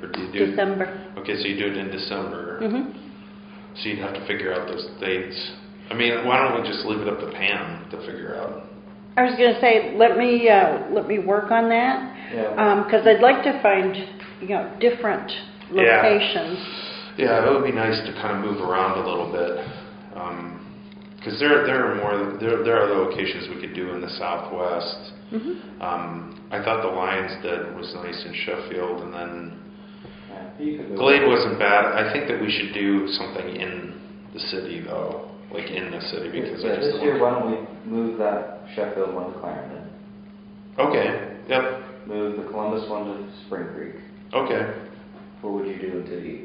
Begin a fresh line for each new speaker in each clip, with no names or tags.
do?
December.
Okay, so you do it in December,
Mhm.
so you'd have to figure out those dates. I mean, why don't we just leave it up to Pam to figure out?
I was gonna say, let me, uh, let me work on that,
Yeah.
Um cause I'd like to find, you know, different
Yeah.
locations.
Yeah, it would be nice to kind of move around a little bit, because there there are more there there are locations we could do in the Southwest.
Mhm.
Um, I thought the Lions did was nice in Sheffield, and then
Yeah, You could go.
Glade wasn't bad. I think that we should do something in the city though, like in the city, because
Yeah,
I just
this year, why don't we move that Sheffield one to Clarendon?
okay, yep,
Move the Columbus one to Spring Creek.
okay,
What would you do in Diddy?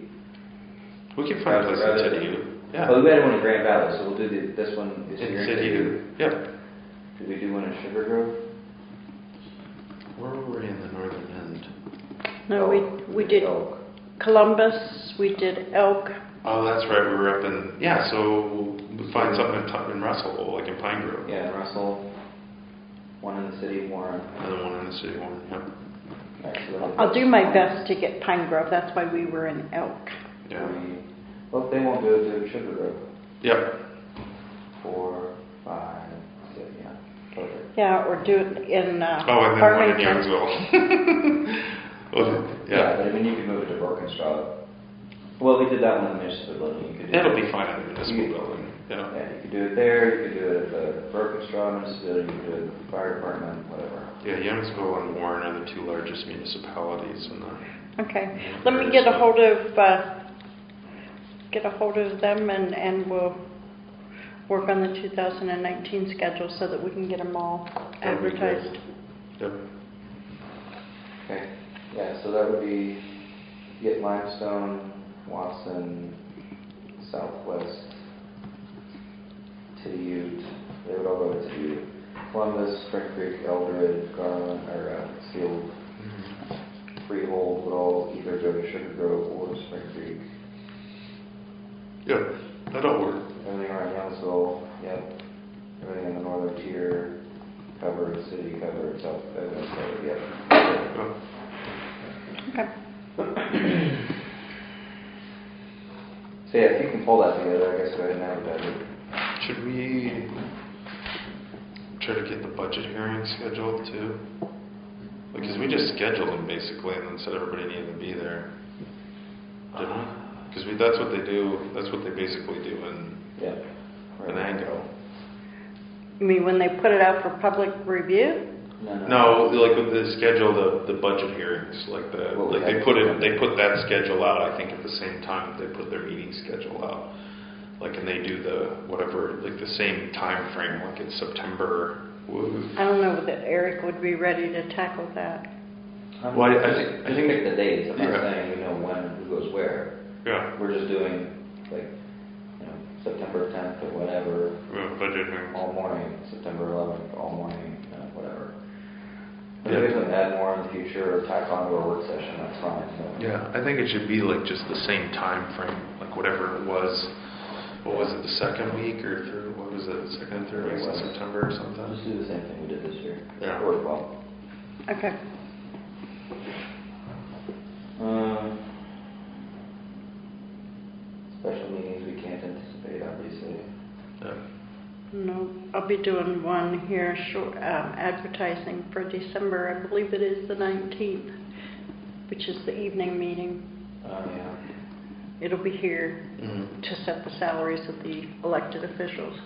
we can find a place in
Rather-
Tidiu. Yeah,
Oh, we had one in Grand Valley, so we'll do the, this one this
in
year.
Tidiu. Yep.
Did we do one in Sugar Grove?
Where were we in the northern end?
No, we,
Elk.
we did
Elk.
Columbus, we did Elk,
Oh, that's right. We were up in yeah. So we find something in, Tu- in Russell, like in Pine Grove,
Yeah, and Russell. One in the city, Warren.
and then one in the city one.
I'll do my best to get Pine Grove, that's why we were in Elk.
Yeah.
Well, if they won't do it, do Sugar Grove.
Yeah. Yep.
Four, five, six, yeah. perfect.
Yeah, or do it in uh,
Oh, and then one in
Farmington.
Youngsville. Well, yeah.
But I mean, you could move it to Brokenstraw. Well, we did that one in the municipal building. You could do
It'll
it-
be fine in the municipal
Mm-hmm.
building. Yeah.
Yeah, you could do it there, you could do it at the Brokenstraw municipal building, you could do it at the fire department, whatever.
Yeah. Youngsville and Warren are the two largest municipalities in the.
Okay, let me get a hold of, uh, get a hold of them and, and we'll work on the 2019 schedule so that we can get them all
That'd be great.
advertised.
Yep.
Okay, yeah, so that would be get limestone, Watson, Southwest, Tidiute, they would all go to Tidiute. Columbus, Spring Creek, Eldred, Garland, or uh, Sealed, Freehold would all either go to Sugar Grove or Spring Creek.
Yep. That'll work.
Everything around Youngsville, yep. Everything in the northern tier, covered, city covered, south, everything's covered, yep.
Yep.
Okay,
So yeah, if you can pull that together, I guess go ahead and advertise it.
Should we try to get the budget hearing scheduled too? Because we just scheduled them basically and then said everybody needed to be there. Didn't
Uh.
we? Because we, that's what they do, that's what they basically do in
Yeah.
Venango.
I mean, when they put it out for public review?
No,
No, like with the schedule, the, the budget hearings, like the,
Well, we
like they
had-
put it, they put that schedule out, I think at the same time they put their meeting schedule out. Like, and they do the, whatever, like the same time frame, like it's September.
I don't know that Eric would be ready to tackle that.
I'm-
Well, I- I think- I
just
think-
pick the dates, I'm not
Yeah.
saying we know when, who goes where.
Yeah.
We're just doing, like, you know, September tenth or whatever,
Well, budget hearings.
all morning, September eleventh, all morning, you know, whatever. If
Yeah.
there's something to add more in the future or tack on to our work session, that's fine, but.
Yeah, I think it should be like just the same time frame, like whatever it was. What was it, the second week or third, what was it, second, third week of September or
I'll
something?
Just do the same thing we did this year.
Yeah.
Work well.
Okay,
Um, Special meetings we can't anticipate, obviously.
Yeah.
no, I'll be doing one here, short, um, advertising for December, I believe it is the 19th, which is the evening meeting.
Um, yeah.
It'll be here.
Mhm.
to set the salaries of the elected officials.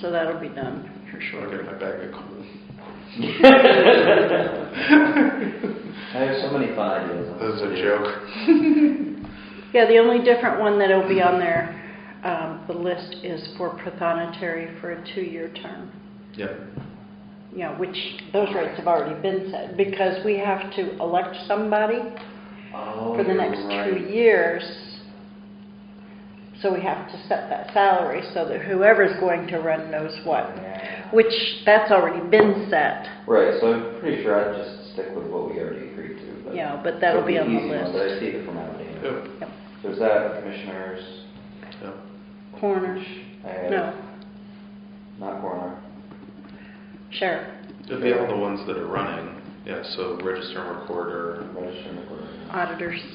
So that'll be done for
Should I
sure.
get my bag of coal?
I have so many fun ideas.
That was a joke.
Yeah, the only different one that'll be on there, um, the list is for prothonotary for a two-year term.
Yeah.
You know, which, those rates have already been set, because we have to elect somebody
Oh,
for the
you're
next
right.
two years. So we have to set that salary so that whoever's going to run knows what,
Yeah.
which, that's already been set,
Right, so I'm pretty sure I'd just stick with what we already agreed to. but-
you know, but that'll be on the
It'll easy
list.
one, But I see the formality.
Yep.
So is that commissioners?
Yep.
Corners,
I have-
no.
Not coroner.
Sheriff,
It'll be all the ones that are running, yeah, so register and recorder,
Register and recorder.
auditors.